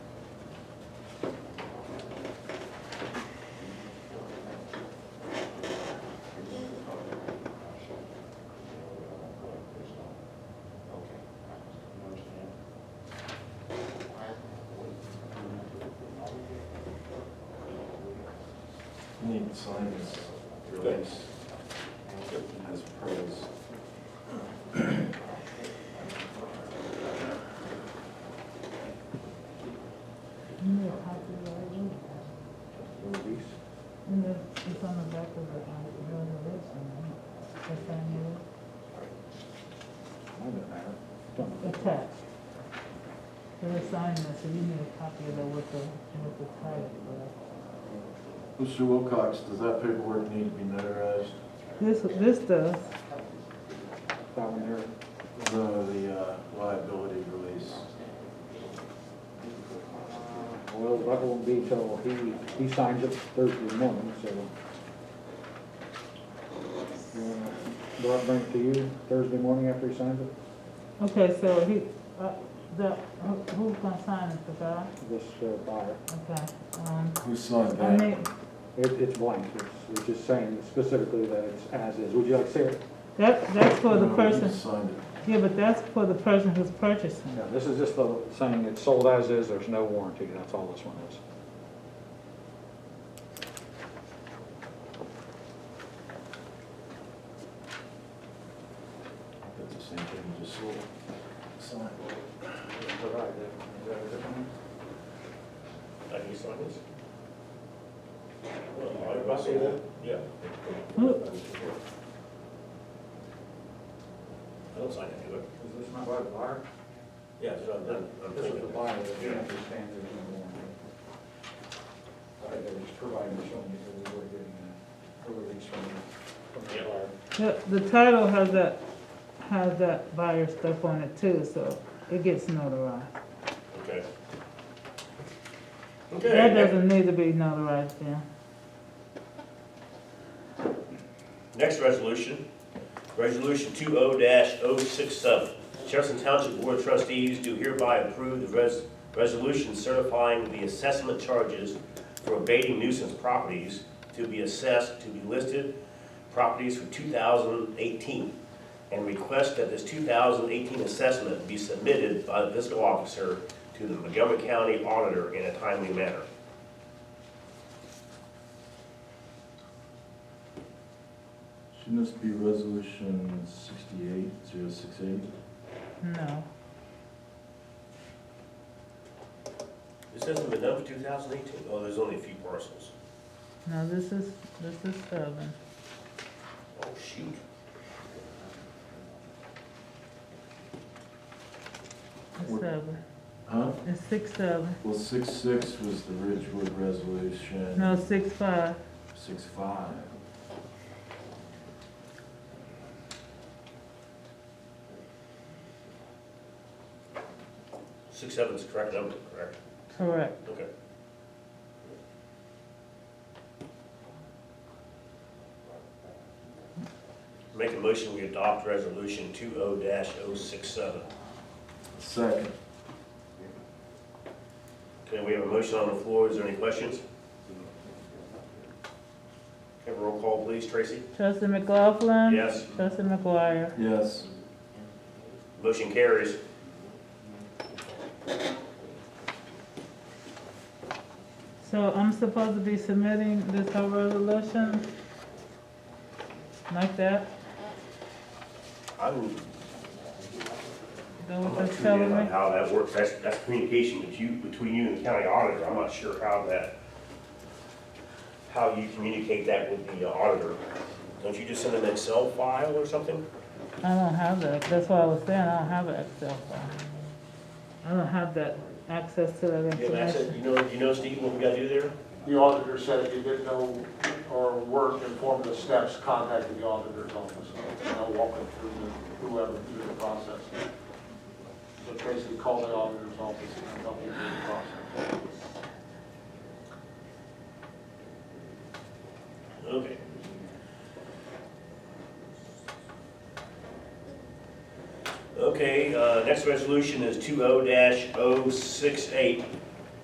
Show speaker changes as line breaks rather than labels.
You need to sign this release as pros.
No, I did already.
Release?
And the- it's on the back of the, uh, the list, and the family, the text. They're assigned that, so you need a copy of that with the, with the title. but-
Mr. Wilcox, does that paperwork need to be notarized?
This, this does,
Down there.
No, the uh, liability release.
Well, that won't be till he, he signs it Thursday morning, so. You wanna- Do I bring it to you Thursday morning after he signs it?
okay, so he, uh, the, who- who's gonna sign it, the guy?
This uh, buyer,
Okay, um,
Who signed
I
that?
mean,
it, it's blank, it's, it's just saying specifically that it's as is. Would you like to see it?
that, that's for the
No, you
person,
Signed it.
yeah, but that's for the person who's purchasing.
No, this is just the saying it's sold as is, there's no warranty, that's all this one is.
That's the same thing you just sold. Signed.
I you sign this?
I see that.
Yeah.
Hmm.
I don't sign it either.
Is this not by the buyer?
Yeah, so I'm done. I'm
This is the
thinking.
buyer that you understand there's no warranty. All right, they're just providing showing you that we were getting a- a release from the, from the
Yeah.
buyer.
The, the title has that, has that buyer stuff on it too, so it gets notarized.
Okay.
That
Okay,
doesn't need to be notarized then.
next resolution, resolution two oh dash oh six seven. Jefferson Township Board of Trustees do hereby approve the res- resolution certifying the assessment charges for abating nuisance properties to be assessed to be listed properties for two thousand eighteen and request that this two thousand eighteen assessment be submitted by the fiscal officer to the Montgomery County Auditor in a timely manner.
Shouldn't this be resolution sixty-eight, zero six eight?
No,
This hasn't been done for 2018. Oh, there's only a few parcels.
no, this is, this is seven.
Oh, shoot.
It's
What?
seven.
Huh?
It's six seven.
Well, six-six was the Ridgewood resolution.
No, six five.
Six-five.
Six, seven's the correct number, correct?
Correct.
Okay. Make a motion, we adopt resolution 20-067.
Second.
Okay, we have a motion on the floor. Is there any questions? Have a roll call, please. Tracy?
Trustee McLaughlin?
Yes.
Trustee McGuire?
Yes.
Motion carries.
So I'm supposed to be submitting this whole resolution? Like that?
I'm
Go
I'm
with
not sure yet on
the settlement?
how that works, that's, that's communication with you, between you and the county auditor, I'm not sure how that, how you communicate that with the auditor. Don't you just send an Excel file or something?
I don't have that, that's why I was saying, I don't have an Excel file. I don't have that, access to that
You have access,
information.
you know, you know, Steve, what we gotta do there?
The auditor said if you didn't know or weren't informed of the steps, contact the auditor's office. And they'll walk them through the, whoever through the process. But basically call the auditor's office and help you through the process.
Okay. Okay, uh, next resolution is two oh dash oh six eight.